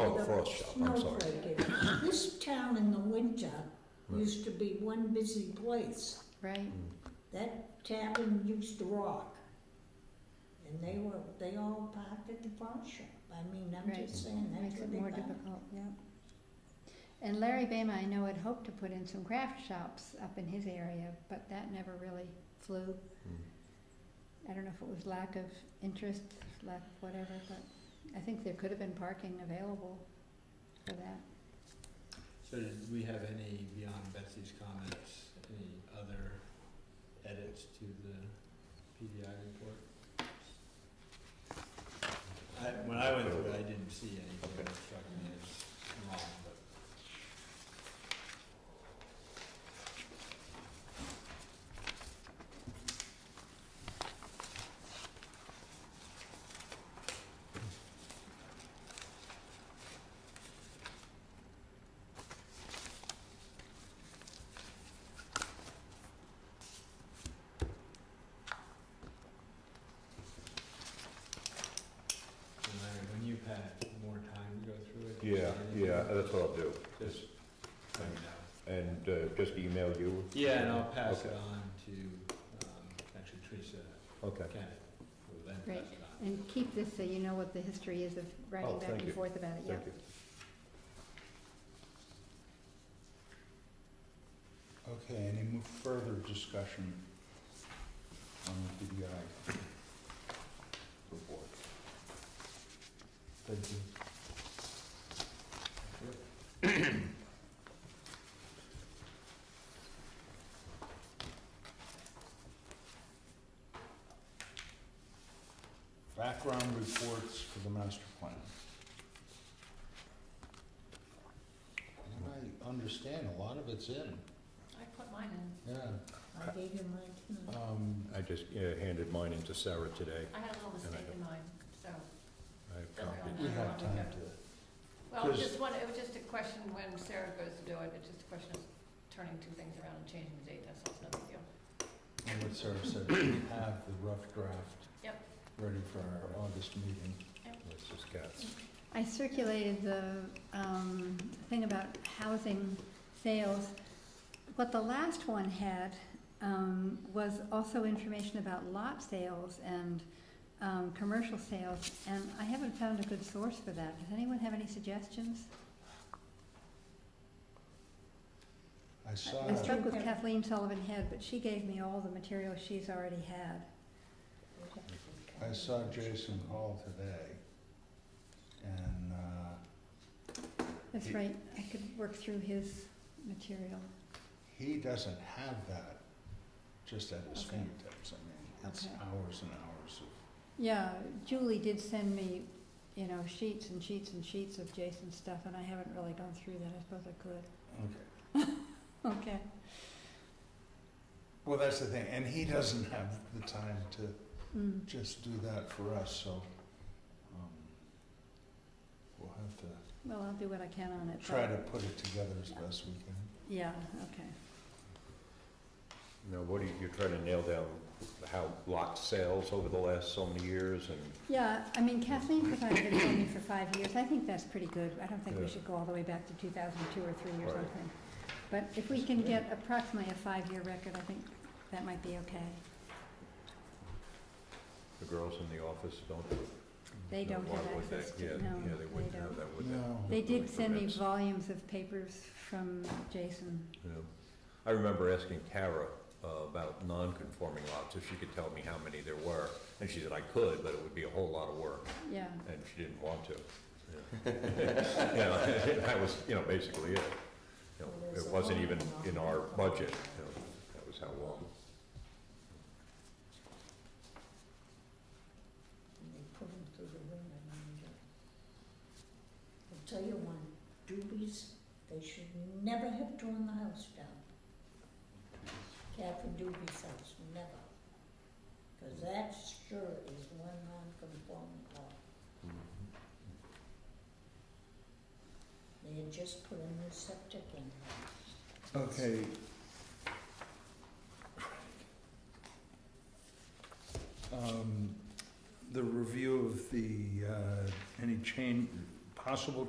Oh, workshop, I'm sorry. snowflake is. This town in the winter used to be one busy place. Right. Mm, That tavern used to rock. And they were, they all parked at the pawn shop. I mean, I'm Right. just saying, that's Makes what it they more parked. difficult, yeah. And Larry Bama, I know, had hoped to put in some craft shops up in his area, but that never really flew. mm. I don't know if it was lack of interest, lack of whatever, but I think there could have been parking available for that. So did we have any, beyond Betsy's comments, any other edits to the PDI report? I, when I went through it, I didn't see anything that struck me as wrong, but. And Larry, when you've had more time to go through it. Yeah, yeah, that's what I'll do. Just, let me know. And uh, just email you? Yeah, and I'll pass it Okay. on to, um, actually Teresa Okay, Kennett, who will then Great. pass it on. And keep this so you know what the history is of Oh, writing back thank you. and forth about it, yeah. thank you. Okay, any mo- further discussion on the PDI report? Thank you. Background reports for the master plan. And I understand a lot of it's in, I put mine in. yeah. I gave him my, tonight. Um, I just uh, handed mine in to Sarah today. I had a little mistake in mine, so. I have Don't worry, copies. we have time to, Well, it was 'Cause- just one, it was just a question when Sarah goes to do it, it's just a question of turning two things around and changing the date, that's all, it's no big deal. and what Sarah said, we have the rough draft. Yep. Ready for our August meeting. This is Kat's. I circulated the, um, thing about housing sales. What the last one had, um, was also information about lot sales and, um, commercial sales, and I haven't found a good source for that. Does anyone have any suggestions? I saw, I it. spoke with Kathleen Sullivan Head, but she gave me all the material she's already had. I saw Jason Hall today, and, uh, That's He- right, I could work through his material. he doesn't have that just at his Okay. fingertips. I mean, it's Okay. hours and hours of Yeah, Julie did send me, you know, sheets and sheets and sheets of Jason's stuff, and I haven't really gone through that, I suppose I could. Okay. Okay, Well, that's the thing, and he doesn't have the time to mm, just do that for us, so, um, we'll have to well, I'll do what I can on it. try but- to put it together as best we can. Yeah, okay. Now, what are you, you're trying to nail down how lot sales over the last so many years and, Yeah, I mean Kathleen provided it for me for five years, I think that's pretty good, I don't think we Yeah. should go all the way back to two thousand two or three or Right. something. But if we can get approximately a five-year record, I think that might be okay. the girls in the office don't? They no, don't why have would they? access to, Yeah, no, Yeah, they wouldn't they have don't. that, would they? No, They did Building send me permits. volumes of papers from Jason. Yeah. I remember asking Tara uh, about non-conforming lots, if she could tell me how many there were. And she said, I could, but it would be a whole lot of work. Yeah, and she didn't want to. You know, that was, you know, basically it. You know, It wasn't even in our budget, you know, that was how long. and they put him through the window. and, uh, I'll tell you one, Doobies, they should never have torn the house down. Catherine Doobie's house, never. Because that sure is one non-conforming lot. Hmm. They had just put a new septic in. okay. Um, the review of the, uh, any change, possible